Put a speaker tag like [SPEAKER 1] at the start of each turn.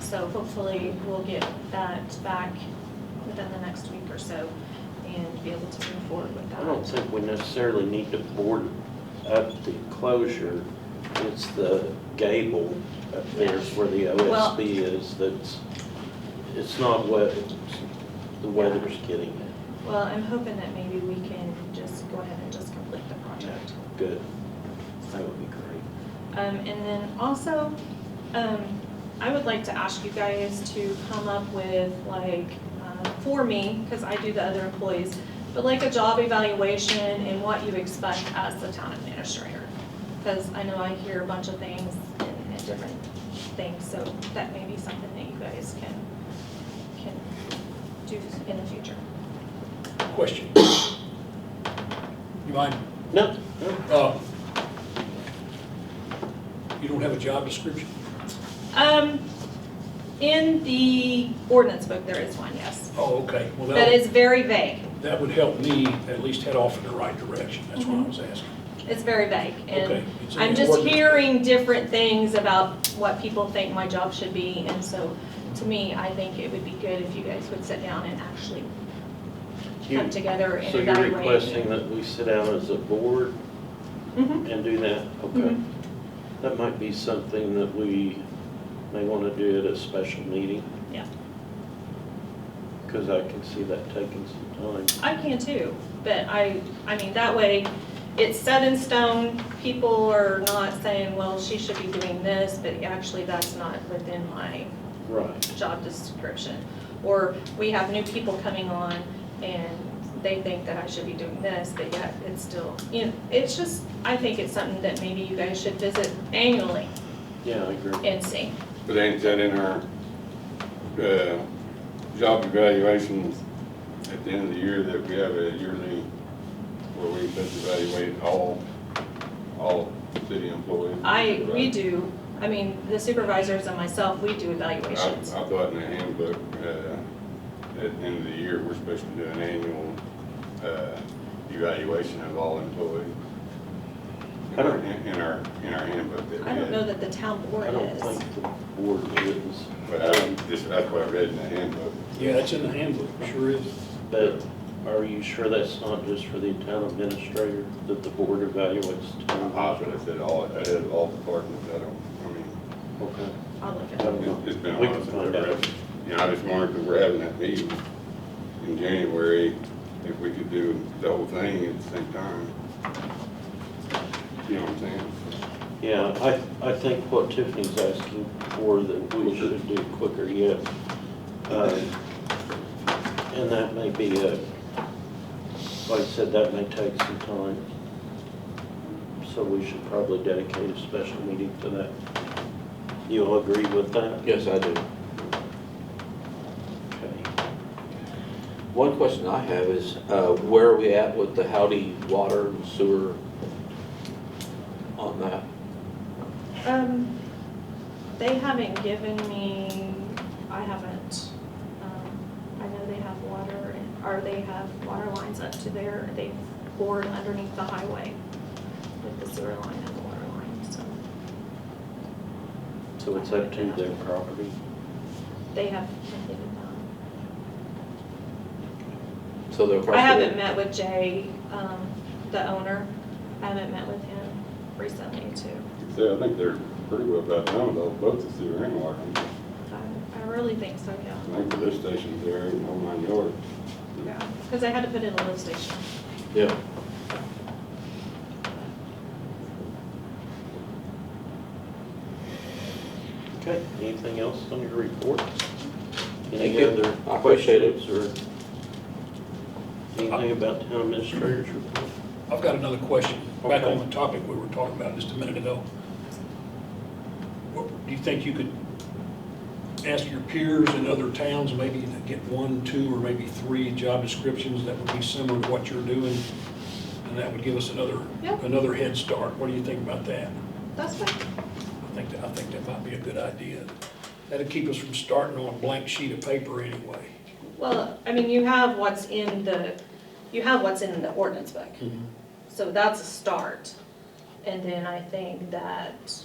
[SPEAKER 1] So hopefully we'll get that back within the next week or so and be able to move forward with
[SPEAKER 2] I don't
[SPEAKER 1] that.
[SPEAKER 2] think we necessarily need to board up the enclosure. It's the gable up there is where the
[SPEAKER 1] Well-
[SPEAKER 2] OSB is that's, it's not what, it's- the weather's getting it.
[SPEAKER 1] Well, I'm hoping that maybe we can just go ahead and just complete the project.
[SPEAKER 2] Good. That would be great.
[SPEAKER 1] Um, and then also, um, I would like to ask you guys to come up with like, uh, for me, because I do the other employees, but like a job evaluation and what you expect as the town administrator. Because I know I hear a bunch of things and and different things, so that may be something that you guys can, can do in the future.
[SPEAKER 3] Question. You mind,
[SPEAKER 2] No, no,
[SPEAKER 3] uh, you don't have a job description?
[SPEAKER 1] Um, in the ordinance book, there is one, yes.
[SPEAKER 3] Oh, okay, well,
[SPEAKER 1] That
[SPEAKER 3] that,
[SPEAKER 1] is very vague.
[SPEAKER 3] that would help me at least head off in the right direction, that's what I was asking.
[SPEAKER 1] It's very vague,
[SPEAKER 3] Okay,
[SPEAKER 1] Mm-hmm. and
[SPEAKER 3] it's in
[SPEAKER 1] I'm
[SPEAKER 3] the
[SPEAKER 1] just
[SPEAKER 3] ordinance.
[SPEAKER 1] hearing different things about what people think my job should be, and so, to me, I think it would be good if you guys would sit down and actually come
[SPEAKER 2] You-
[SPEAKER 1] together and
[SPEAKER 2] So you're
[SPEAKER 1] evaluate.
[SPEAKER 2] requesting that we sit down as a board
[SPEAKER 1] Mhm.
[SPEAKER 2] and do that? Okay.
[SPEAKER 1] Mhm.
[SPEAKER 2] That might be something that we may want to do at a special meeting.
[SPEAKER 1] Yeah.
[SPEAKER 2] Because I can see that taking some time.
[SPEAKER 1] I can too, but I, I mean, that way, it's set in stone, people are not saying, well, she should be doing this, but actually, that's not within my
[SPEAKER 2] Right.
[SPEAKER 1] job description. Or we have new people coming on and they think that I should be doing this, but yet it's still, you know, it's just, I think it's something that maybe you guys should visit annually
[SPEAKER 2] Yeah, I agree.
[SPEAKER 1] and see.
[SPEAKER 4] But ain't that in our, uh, job evaluations at the end of the year that we have a yearly where we just evaluate all, all city employees?
[SPEAKER 1] I, we
[SPEAKER 4] Right.
[SPEAKER 1] do, I mean, the supervisors and myself, we do
[SPEAKER 4] I, I
[SPEAKER 1] evaluations.
[SPEAKER 4] thought in the handbook, uh, at the end of the year, we're supposed to do an annual, uh, evaluation of all employees. In
[SPEAKER 2] I
[SPEAKER 4] our,
[SPEAKER 2] don't-
[SPEAKER 4] in our, in our handbook that we
[SPEAKER 1] I don't
[SPEAKER 4] had.
[SPEAKER 1] know that the town board
[SPEAKER 2] I don't
[SPEAKER 1] is.
[SPEAKER 2] think the board is, Um,
[SPEAKER 4] But I, this, that's what I read in the handbook.
[SPEAKER 3] Yeah, that's in the handbook, sure is.
[SPEAKER 2] but are you sure that's not just for the town administrator, that the board evaluates
[SPEAKER 4] I'm
[SPEAKER 2] town?
[SPEAKER 4] positive that all, I had all departments, I don't, I mean,
[SPEAKER 2] Okay.
[SPEAKER 1] I'll look
[SPEAKER 2] I
[SPEAKER 1] at it.
[SPEAKER 2] don't know.
[SPEAKER 4] it's- it's been a
[SPEAKER 2] We
[SPEAKER 4] while
[SPEAKER 2] can
[SPEAKER 4] since
[SPEAKER 2] find
[SPEAKER 4] I've
[SPEAKER 2] out.
[SPEAKER 4] read. You know, I just wondered if we're having that meeting in January, if we could do the whole thing at the same time. You know what I'm saying?
[SPEAKER 2] Yeah, I, I think what Tiffany's asking for, that we should do quicker yet. um, And that may be a, like I said, that may take some time. So we should probably dedicate a special meeting to that. You all agree with that?
[SPEAKER 5] Yes, I do.
[SPEAKER 2] Okay.
[SPEAKER 5] One question I have is, uh, where are we at with the Howdy water and sewer on that?
[SPEAKER 1] Um, they haven't given me, I haven't, um, I know they have water, and- or they have water lines up to there, they bored underneath the highway with the sewer line and the water line, so
[SPEAKER 2] So it's up to their property.
[SPEAKER 1] they have completed that.
[SPEAKER 5] So they're across
[SPEAKER 1] I
[SPEAKER 5] the-
[SPEAKER 1] haven't met with Jay, um, the owner, I haven't met with him recently too.
[SPEAKER 4] So I think they're pretty well about done with all, both the sewer and water.
[SPEAKER 1] I, I really think so,
[SPEAKER 4] I
[SPEAKER 1] yeah.
[SPEAKER 4] think the lift station's there, and all mine yours.
[SPEAKER 1] Yeah, because I had to put in a lift station.
[SPEAKER 5] Yeah.
[SPEAKER 2] Okay, anything else on your report?
[SPEAKER 5] Thank
[SPEAKER 2] Any
[SPEAKER 5] you.
[SPEAKER 2] other
[SPEAKER 5] I appreciate it.
[SPEAKER 2] questions or anything about town administrator's report?
[SPEAKER 3] I've got another question, back
[SPEAKER 2] Okay.
[SPEAKER 3] on the topic we were talking about just a minute ago. What- Do you think you could ask your peers in other towns, maybe to get one, two, or maybe three job descriptions that would be similar to what you're doing? And that would give us another,
[SPEAKER 1] Yeah.
[SPEAKER 3] another head start. What do you think about that?
[SPEAKER 1] That's fine.
[SPEAKER 3] I think, that- I think that might be a good idea. That'd keep us from starting on a blank sheet of paper anyway.
[SPEAKER 1] Well, I mean, you have what's in the, you have what's in the
[SPEAKER 3] Hmm.
[SPEAKER 1] ordinance book. So that's a start. And then I think that um,